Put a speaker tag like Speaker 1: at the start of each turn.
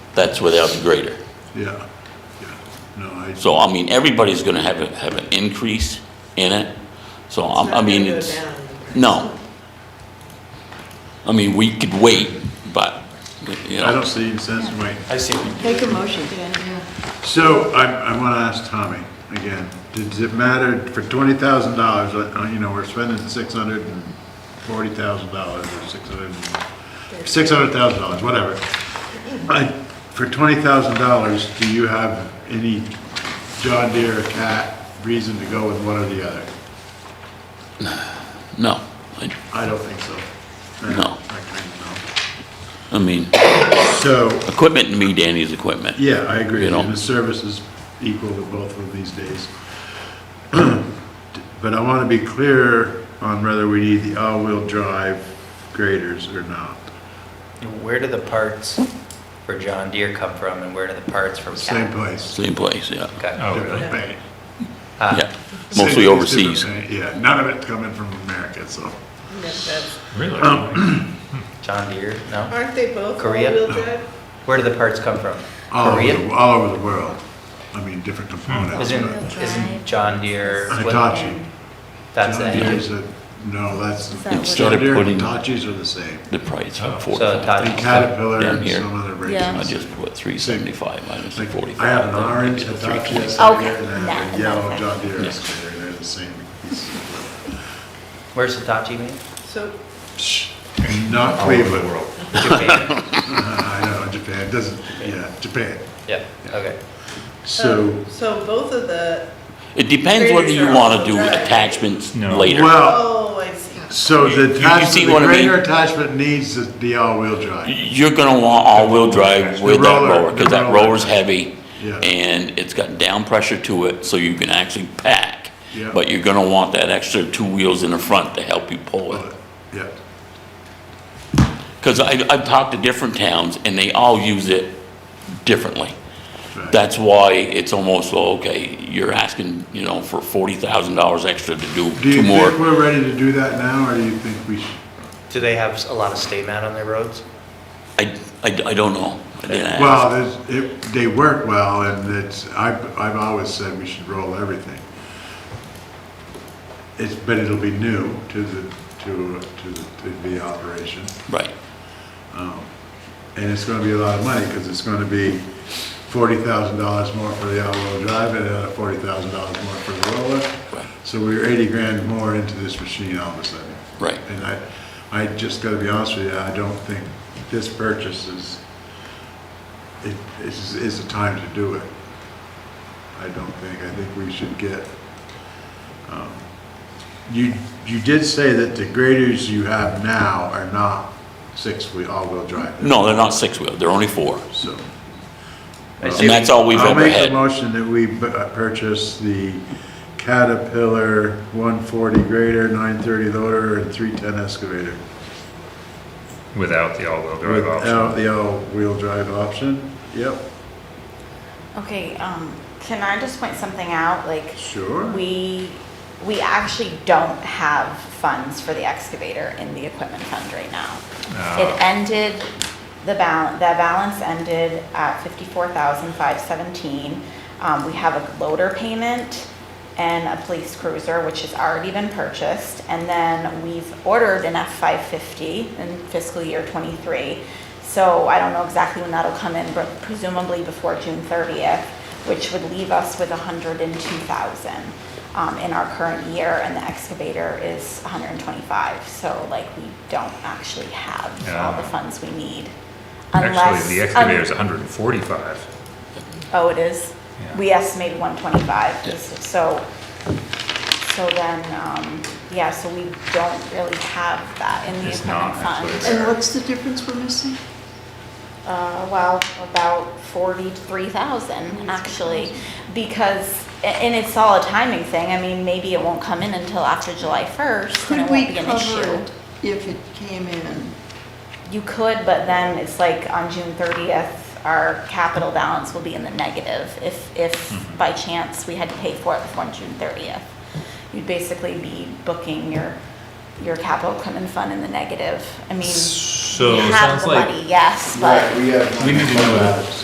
Speaker 1: That's without the grader.
Speaker 2: Yeah, yeah. No, I,
Speaker 1: So, I mean, everybody's gonna have, a- have an increase in it, so, I, I mean, it's, no. I mean, we could wait, but, you
Speaker 2: I
Speaker 1: know,
Speaker 2: don't see any sense in waiting.
Speaker 3: I see.
Speaker 4: Make a motion.
Speaker 2: So I, I want to ask Tommy again, does it matter for twenty thousand dollars, uh, you know, we're spending six hundred and forty thousand dollars or six hundred, six hundred thousand dollars, whatever. I, for twenty thousand dollars, do you have any John Deere or Cat reason to go with one or the other?
Speaker 1: no, I,
Speaker 2: I don't think so.
Speaker 1: No.
Speaker 2: I kind of
Speaker 1: I mean,
Speaker 2: know. So,
Speaker 1: equipment to me, Danny's equipment.
Speaker 2: Yeah, I agree.
Speaker 1: You know?
Speaker 2: And the service is equal to both of these days. But I want to be clear on whether we need the all-wheel drive graders or not.
Speaker 3: Where do the parts for John Deere come from and where do the parts from
Speaker 2: Same
Speaker 3: Cat?
Speaker 2: place.
Speaker 1: Same place, yeah,
Speaker 3: Okay.
Speaker 5: Oh, really?
Speaker 2: Different paint.
Speaker 3: Ah,
Speaker 1: yeah,
Speaker 2: Same
Speaker 1: mostly
Speaker 2: place,
Speaker 1: overseas.
Speaker 2: different paint. Yeah, none of it coming from America, so.
Speaker 5: Really?
Speaker 3: John Deere, no?
Speaker 4: Aren't they both
Speaker 3: Korea?
Speaker 4: all-wheel drive?
Speaker 3: Where do the parts come from?
Speaker 2: All over,
Speaker 3: Korea?
Speaker 2: the- all over the world. I mean, different
Speaker 1: Hmm.
Speaker 2: components.
Speaker 3: Isn't,
Speaker 2: but-
Speaker 3: isn't John Deere? what-
Speaker 2: Hitachi.
Speaker 3: That's
Speaker 2: John
Speaker 3: it.
Speaker 2: Deere's a- No, that's,
Speaker 6: that what-
Speaker 1: Instead
Speaker 2: John
Speaker 1: of
Speaker 2: Deere and
Speaker 1: putting
Speaker 2: Hitachis are the same.
Speaker 1: the price
Speaker 5: Oh.
Speaker 1: of
Speaker 5: So
Speaker 1: forty-five.
Speaker 3: So
Speaker 2: And
Speaker 3: Hitachi,
Speaker 2: Caterpillar
Speaker 1: Down
Speaker 2: and
Speaker 1: here.
Speaker 2: some other
Speaker 6: Yeah.
Speaker 1: I
Speaker 2: brands.
Speaker 1: just put three seventy-five minus the
Speaker 2: Like,
Speaker 1: forty-five.
Speaker 2: I have an
Speaker 1: then
Speaker 2: orange
Speaker 1: it's a
Speaker 2: Hitachi
Speaker 1: 320.
Speaker 2: excavator
Speaker 6: Okay.
Speaker 2: and I have a
Speaker 6: That-
Speaker 2: yellow
Speaker 6: that's
Speaker 2: John Deere
Speaker 1: Yeah.
Speaker 2: excavator, they're the same. piece.
Speaker 3: where's Hitachi made?
Speaker 4: So,
Speaker 2: Shh, Not Cleveland.
Speaker 3: Japan.
Speaker 2: I know, Japan, doesn't, yeah, Japan.
Speaker 3: Yeah, okay.
Speaker 2: So,
Speaker 4: um, so both of the,
Speaker 1: It depends whether you
Speaker 4: Graders are
Speaker 1: wanna
Speaker 4: all
Speaker 1: do
Speaker 4: right.
Speaker 1: attachments
Speaker 5: No.
Speaker 1: later.
Speaker 2: well,
Speaker 4: oh, I see.
Speaker 2: so
Speaker 1: You-
Speaker 2: the
Speaker 1: you
Speaker 2: attachment,
Speaker 1: see
Speaker 2: the
Speaker 1: what I mean?
Speaker 2: greater attachment needs to be all-wheel drive.
Speaker 1: You're gonna want all-wheel drive
Speaker 2: The
Speaker 1: with that
Speaker 2: roller-
Speaker 1: roller,
Speaker 2: the
Speaker 1: because that
Speaker 2: roller.
Speaker 1: roller's heavy,
Speaker 2: Yeah.
Speaker 1: and it's got down pressure to it, so you can actually pack.
Speaker 2: Yeah.
Speaker 1: But you're gonna want that extra two wheels in the front to help you pull it.
Speaker 2: But, Yeah,
Speaker 1: Because I, I've talked to different towns, and they all use it differently.
Speaker 2: right.
Speaker 1: That's why it's almost, well, okay, you're asking, you know, for forty thousand dollars extra to do
Speaker 2: Do you
Speaker 1: two
Speaker 2: think
Speaker 1: more.
Speaker 2: we're ready to do that now, or do you think we should?
Speaker 3: Do they have a lot of stay mat on their roads?
Speaker 1: I, I, I don't know. I didn't ask.
Speaker 2: Well, there's- it, they work well, and it's, I've, I've always said we should roll everything. It's, but it'll be new to the, to, to the- to the operation,
Speaker 1: Right,
Speaker 2: and it's gonna be a lot of money, because it's gonna be forty thousand dollars more for the all-wheel drive, and another forty thousand dollars more for the roller.
Speaker 1: Right.
Speaker 2: So we're eighty grand more into this machine all of a sudden.
Speaker 1: right.
Speaker 2: And I, I just gotta be honest with you, I don't think this purchase is, it, is, is the time to do it. I don't think, I think we should get, um, you, you did say that the graders you have now are not six-wheel, all-wheel drive.
Speaker 1: No, they're not six-wheel, they're only four.
Speaker 2: So.
Speaker 3: I
Speaker 1: And
Speaker 3: see,
Speaker 1: that's all we've
Speaker 2: I'll
Speaker 1: ever
Speaker 2: make a
Speaker 1: had.
Speaker 2: motion that we bu- uh, purchase the Caterpillar 140 grader, 930 loader, and 310 excavator.
Speaker 5: Without the all-wheel drive option.
Speaker 2: Without the all-wheel drive option? Yep,
Speaker 6: Okay, um, can I just point something out? Like,
Speaker 2: sure.
Speaker 6: we, we actually don't have funds for the excavator in the equipment fund right now.
Speaker 5: Ah.
Speaker 6: It ended, the balance, that balance ended at fifty-four thousand five seventeen. Um, we have a loader payment and a police cruiser, which has already been purchased. And then we've ordered an F-550 in fiscal year twenty-three. So I don't know exactly when that'll come in, but presumably before June thirtieth, which would leave us with hundred and two thousand um, in our current year, and the excavator is 125. So like, we don't actually have all the
Speaker 5: Ah.
Speaker 6: funds we need. unless- um,
Speaker 5: Actually, the excavator is
Speaker 6: un-
Speaker 5: 145.
Speaker 6: Oh, it is?
Speaker 5: Yeah.
Speaker 6: We estimated 125,
Speaker 1: Yeah.
Speaker 6: so, so then, um, yeah, so we don't really have that in the
Speaker 5: It's not
Speaker 6: equipment fund.
Speaker 5: actually.
Speaker 4: And what's the difference we're missing?
Speaker 6: Uh, well, about 43,000, actually, because, a- and it's all a timing thing. I mean, maybe it won't come in until after July 1st, and
Speaker 4: Could
Speaker 6: it
Speaker 4: we
Speaker 6: won't be an
Speaker 4: cover
Speaker 6: issue.
Speaker 4: it if it came in?
Speaker 6: You could, but then it's like on June thirtieth, our capital balance will be in the negative if,
Speaker 5: Mm-hmm.
Speaker 6: if by chance we had to pay for it before June thirtieth. You'd basically be booking your, your capital equipment fund in the negative. I mean,
Speaker 5: So
Speaker 6: you
Speaker 5: it
Speaker 6: have
Speaker 5: sounds
Speaker 6: the
Speaker 5: like
Speaker 6: money, yes, but.
Speaker 2: we have.
Speaker 5: We need to know that.